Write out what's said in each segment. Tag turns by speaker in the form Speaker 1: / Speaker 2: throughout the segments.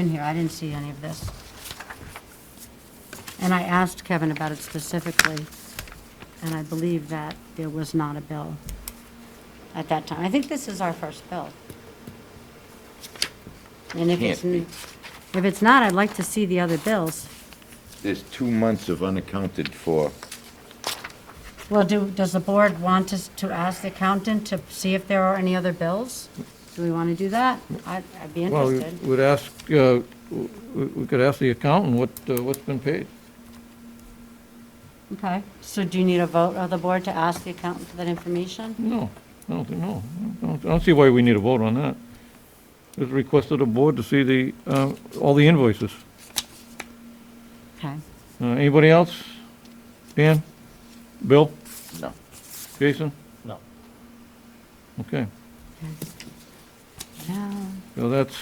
Speaker 1: in here, I didn't see any of this. And I asked Kevin about it specifically, and I believe that there was not a bill at that time. I think this is our first bill. And if it's,
Speaker 2: Can't be.
Speaker 1: n- if it's not, I'd like to see the other bills.
Speaker 2: There's two months of unaccounted for.
Speaker 1: Well, do, does the board want us to ask the accountant to see if there are any other bills? Do we want to do that? I'd I'd be
Speaker 3: Well, we
Speaker 1: interested.
Speaker 3: would ask, uh, w- w- we could ask the accountant what, uh, what's been paid.
Speaker 1: Okay, so do you need a vote of the board to ask the accountant for that information?
Speaker 3: No, I don't think, no. I don't- I don't see why we need a vote on that. It's requested of board to see the, uh, all the invoices.
Speaker 1: Okay.
Speaker 3: Uh, Anybody else? Dan? Bill?
Speaker 2: No.
Speaker 3: Jason?
Speaker 4: No.
Speaker 3: Okay,
Speaker 1: No.
Speaker 3: so that's,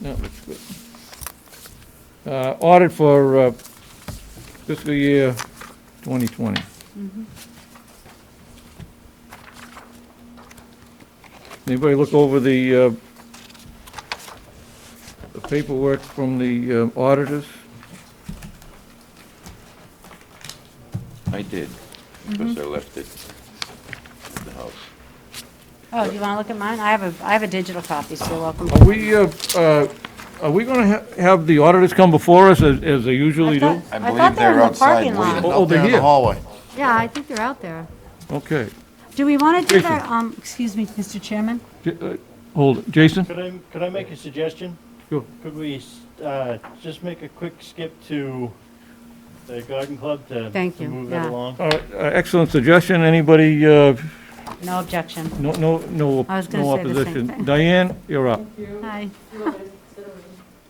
Speaker 3: that looks good. Uh, Audit for uh, fiscal year 2020. Anybody look over the uh, the paperwork from the uh, auditors?
Speaker 2: I did, because I left it at the house.
Speaker 1: Oh, do you want to look at mine? I have a, I have a digital copy, so you're welcome.
Speaker 3: Are we, uh, uh, are we going to have the auditors come before us as as they usually
Speaker 1: I
Speaker 3: do?
Speaker 1: thought-
Speaker 2: I
Speaker 1: I
Speaker 2: believe
Speaker 1: thought they were
Speaker 2: they're
Speaker 1: in the
Speaker 2: outside
Speaker 1: parking
Speaker 2: waiting.
Speaker 1: lot.
Speaker 3: Oh, they're
Speaker 4: In the
Speaker 3: here.
Speaker 4: hallway.
Speaker 1: Yeah, I think they're out there.
Speaker 3: Okay.
Speaker 1: Do we want to do
Speaker 3: Jason.
Speaker 1: that, um, excuse me, Mr. Chairman?
Speaker 3: J- uh, Hold, it. Jason?
Speaker 4: Could I, could I make a suggestion?
Speaker 3: Sure.
Speaker 4: Could we, uh, just make a quick skip to the garden club to.
Speaker 1: Thank
Speaker 4: to
Speaker 1: you,
Speaker 4: Move that
Speaker 1: yeah.
Speaker 4: along?
Speaker 3: All right, uh, Excellent suggestion. Anybody, uh,
Speaker 1: No objection.
Speaker 3: no, no, no
Speaker 1: I was gonna
Speaker 3: no
Speaker 1: say the same thing.
Speaker 3: opposition? Diane, you're up.
Speaker 1: Hi,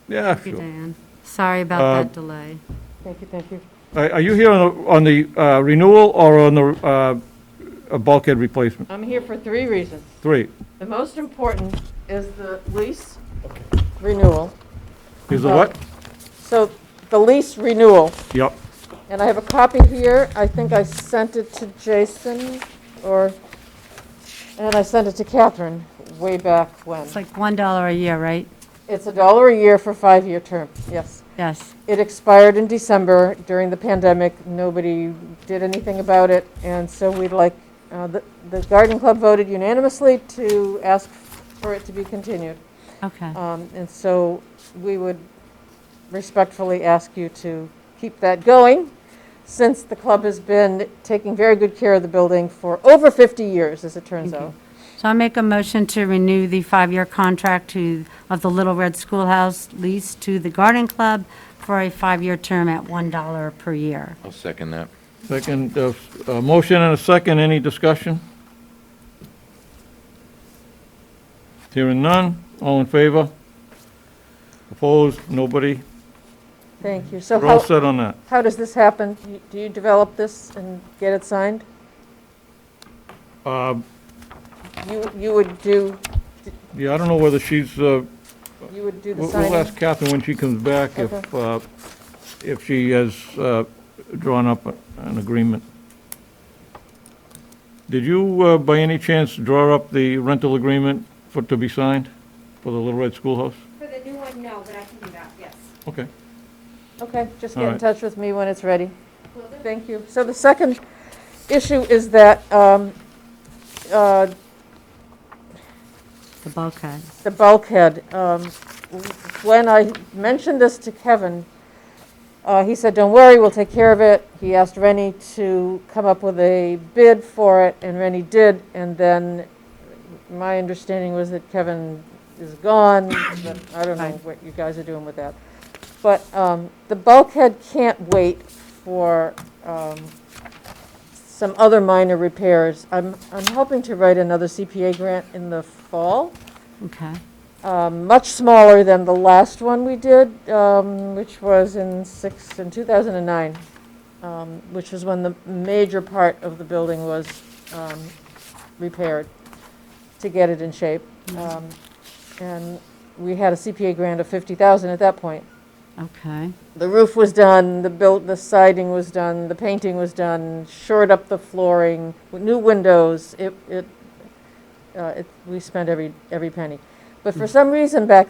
Speaker 3: Yeah,
Speaker 1: thank you,
Speaker 3: sure.
Speaker 1: Diane. Sorry
Speaker 3: Uh,
Speaker 1: about that delay. Thank you, thank you.
Speaker 3: Are are you here on the on the uh, renewal or on the uh, a bulkhead replacement?
Speaker 5: I'm here for three reasons.
Speaker 3: Three.
Speaker 5: The most important is the lease renewal.
Speaker 3: Is it what?
Speaker 5: So the lease renewal,
Speaker 3: Yep.
Speaker 5: and I have a copy here. I think I sent it to Jason or, and I sent it to Catherine way back when.
Speaker 1: It's like one dollar a year, right?
Speaker 5: It's a dollar a year for five-year term, yes.
Speaker 1: Yes.
Speaker 5: It expired in December during the pandemic. Nobody did anything about it. And so we'd like, uh, the the garden club voted unanimously to ask for it to be continued.
Speaker 1: Okay,
Speaker 5: Um, And so we would respectfully ask you to keep that going, since the club has been taking very good care of the building for over 50 years, as it turns out.
Speaker 1: so I make a motion to renew the five-year contract to, of the Little Red Schoolhouse lease to the Garden Club for a five-year term at one dollar per year.
Speaker 2: I'll second that.
Speaker 3: Second, uh, s- uh, motion and a second, any discussion? Hearing none, all in favor? Opposed, nobody?
Speaker 5: Thank you. So
Speaker 3: We're all
Speaker 5: how,
Speaker 3: set on that.
Speaker 5: how does this happen? You- Do you develop this and get it signed?
Speaker 3: Uh,
Speaker 5: You, you would do,
Speaker 3: Yeah, I don't know whether she's, uh,
Speaker 5: you would do the
Speaker 3: we'll we'll
Speaker 5: signing?
Speaker 3: ask Catherine when she comes back if, uh, if she has uh, drawn up a- an agreement. Did you, uh, by any chance, draw up the rental agreement for, to be signed for the Little Red Schoolhouse?
Speaker 6: For the new one, no, but I can do that, yes.
Speaker 3: Okay.
Speaker 5: Okay, just
Speaker 3: All
Speaker 5: get in
Speaker 3: right.
Speaker 5: touch with me when it's ready. Thank you. So the second issue is that um, uh,
Speaker 1: The bulkhead.
Speaker 5: the bulkhead. um, When I mentioned this to Kevin, uh, he said, "Don't worry, we'll take care of it." He asked Rennie to come up with a bid for it, and Rennie did. And then my understanding was that Kevin is gone, but I don't know
Speaker 1: Right.
Speaker 5: what you guys are doing with that. But um, the bulkhead can't wait for um, some other minor repairs. I'm I'm hoping to write another CPA grant in the fall
Speaker 1: Okay.
Speaker 5: um, much smaller than the last one we did, um, which was in six, in 2009, um, which was when the major part of the building was um, repaired to get it in shape. Um, And we had a CPA grant of 50,000 at that point.
Speaker 1: Okay,
Speaker 5: The roof was done, the built, the siding was done, the painting was done, shored up the flooring, w- new windows, it, it, uh, it, we spent every, every penny. But for some reason back